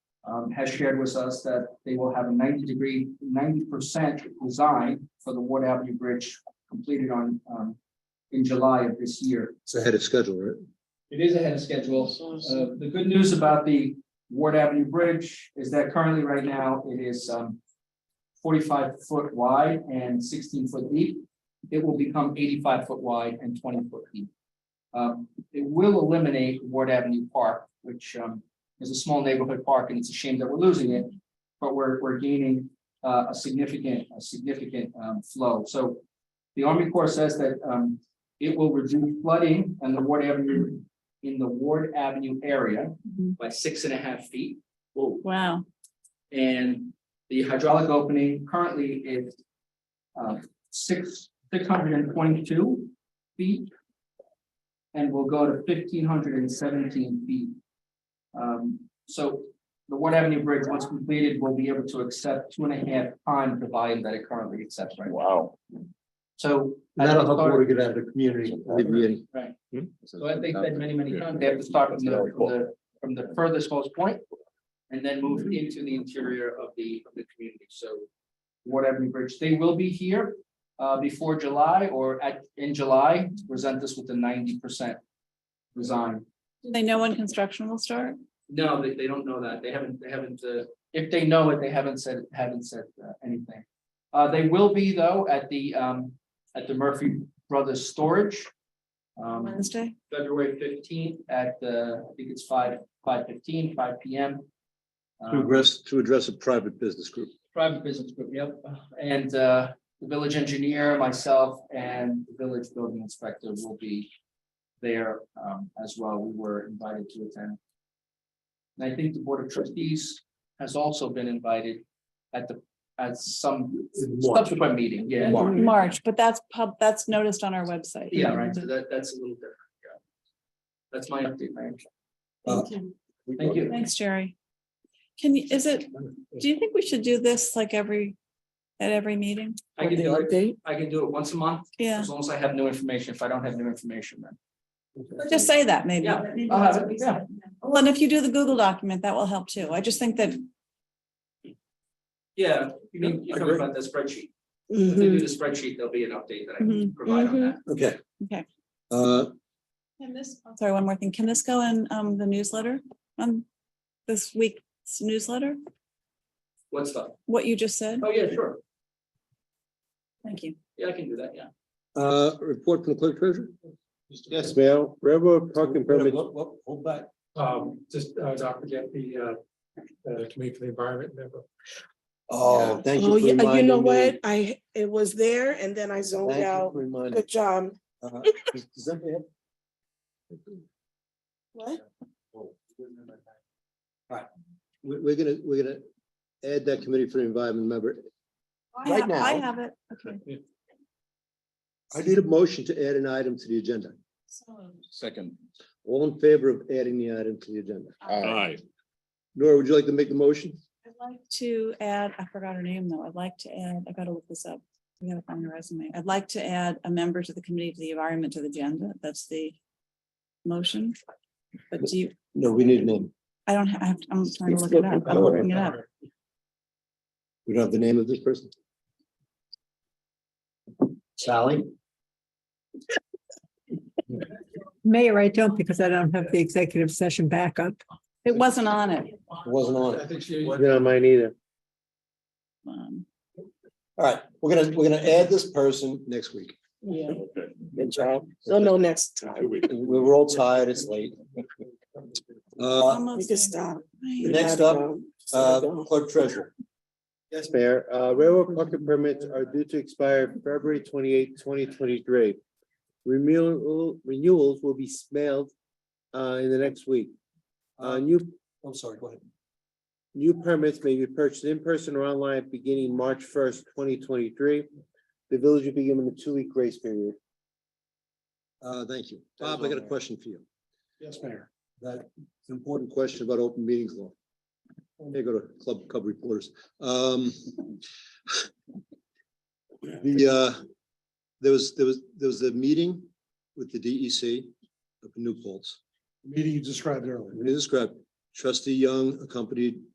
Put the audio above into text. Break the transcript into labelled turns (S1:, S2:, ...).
S1: um, has shared with us that they will have a ninety degree, ninety percent design for the Ward Avenue Bridge completed on, um, in July of this year.
S2: It's ahead of schedule, right?
S1: It is ahead of schedule. Uh, the good news about the Ward Avenue Bridge is that currently right now it is, um, forty-five foot wide and sixteen foot deep. It will become eighty-five foot wide and twenty foot deep. Um, it will eliminate Ward Avenue Park, which, um, is a small neighborhood park and it's a shame that we're losing it. But we're, we're gaining, uh, a significant, a significant, um, flow. So the Army Corps says that, um, it will reduce flooding and the Ward Avenue in the Ward Avenue area
S3: Mhm.
S1: by six and a half feet.
S3: Wow,
S1: And the hydraulic opening currently is uh, six, six hundred and twenty-two feet and will go to fifteen hundred and seventeen feet. Um, So the Ward Avenue Bridge, once completed, will be able to accept two and a half times the volume that it currently accepts right now.
S4: Wow.
S1: So.
S2: That'll help water get out of the community. Hmm?
S1: Right. So I think that many, many times, they have to start from the, from the, from the furthest most point And then move into the interior of the, of the community, so. Whatever bridge, they will be here, uh, before July or at, in July, to present this with the ninety percent. Resign,
S3: Do they know when construction will start?
S1: no, they, they don't know that, they haven't, they haven't, uh, if they know it, they haven't said, haven't said uh, anything. Uh, they will be though at the, um, at the Murphy Brothers Storage. Um,
S3: Wednesday?
S1: February fifteenth at, uh, I think it's five, five fifteen, five P M. Um,
S2: To address, to address a private business group.
S1: Private business group, yep, and, uh, the village engineer, myself, and the village building inspector will be there, um, as well, we were invited to attend. And I think the board of trustees has also been invited at the, at some subsequent meeting, yeah.
S2: March.
S3: March, but that's pub, that's noticed on our website.
S1: Yeah, right, so that, that's a little different, yeah. That's my update, Mayor. Oh.
S3: Thank you.
S1: Thank you.
S3: Thanks, Jerry. Can, you? is it, do you think we should do this like every, at every meeting?
S1: I can do it, I can do it once a month,
S3: Yeah,
S1: As long as I have new information, if I don't have new information, then.
S3: just say that maybe.
S1: Yeah. I'll have it, yeah.
S3: Well, and if you do the Google document, that will help too. I just think that,
S1: Yeah, you mean, you're talking
S2: Agree.
S1: about the spreadsheet.
S5: Mm-hmm.
S1: If they do the spreadsheet, there'll be an update that I can
S3: Mhm.
S1: provide on that.
S2: Okay.
S3: Okay.
S2: Uh,
S3: can this, I'm sorry, one more thing. Can this go in um the newsletter? On this week's newsletter,
S1: What's up?
S3: what you just said?
S1: Oh, yeah, sure.
S3: Thank you.
S1: Yeah, I can do that, yeah.
S2: uh, report from the clerk treasurer?
S6: Yes.
S2: Mayor, railroad parking permit.
S6: Hold back. Um, just, uh, don't forget the, uh, uh, committee for the environment member.
S2: Oh, thank you
S5: Oh,
S2: for
S5: yeah, uh, you
S2: reminding
S5: know
S2: me.
S5: what? I, it was there and then I zoned
S2: Thank you
S5: out.
S2: for reminding.
S5: Good job.
S2: Uh, does- does anybody have-
S5: What?
S2: All right, we, we're gonna, we're gonna add that committee for the environment member.
S3: I
S2: Right
S3: have- I
S2: now-
S3: have it. Okay.
S2: I need a motion to add an item to the agenda.
S4: Second.
S2: All in favor of adding the item to the agenda?
S4: Aye.
S2: Nora, would you like to make the motion?
S3: I'd like to add, I forgot her name though. I'd like to add, I gotta look this up. We gotta find her resume. I'd like to add a member to the committee to the environment to the agenda. That's the motion. But do you,
S2: No, we need a name.
S3: I don't have, I have- I'm trying to look it up. I'm looking it up.
S2: We don't have the name of this person? Sally?
S7: Mayor, I don't because I don't have the executive session backup.
S3: It wasn't on it.
S2: Wasn't on
S6: I
S2: it.
S6: think she.
S2: No, mine either. Uh,
S3: Um,
S2: All right, we're gonna, we're gonna add this person next week.
S5: Yeah,
S4: Okay.
S5: good job. You'll know next
S4: Two
S5: time.
S4: weeks.
S2: We were all tired, it's late. Uh,
S3: almost
S5: You can
S3: there.
S5: stop.
S3: Right.
S2: Next up,
S5: um,
S2: uh, clerk treasurer.
S8: Yes, Mayor, uh, railroad parking permits are due to expire February 28, 2023. Renewal, renewals will be mailed, uh, in the next week. Uh, new,
S2: I'm sorry, go ahead.
S8: new permits may be purchased in person or online beginning March first, twenty twenty-three. The village will be given a two-week grace period.
S2: Uh, thank you. Bob, I got a question for you.
S6: Yes, Mayor.
S2: That important question about open meetings law. They go to club, club reporters. Um. The, uh, there was, there was, there was a meeting with the DEC up in New Paltz.
S6: Meeting you described earlier.
S2: It is described, trustee Young accompanied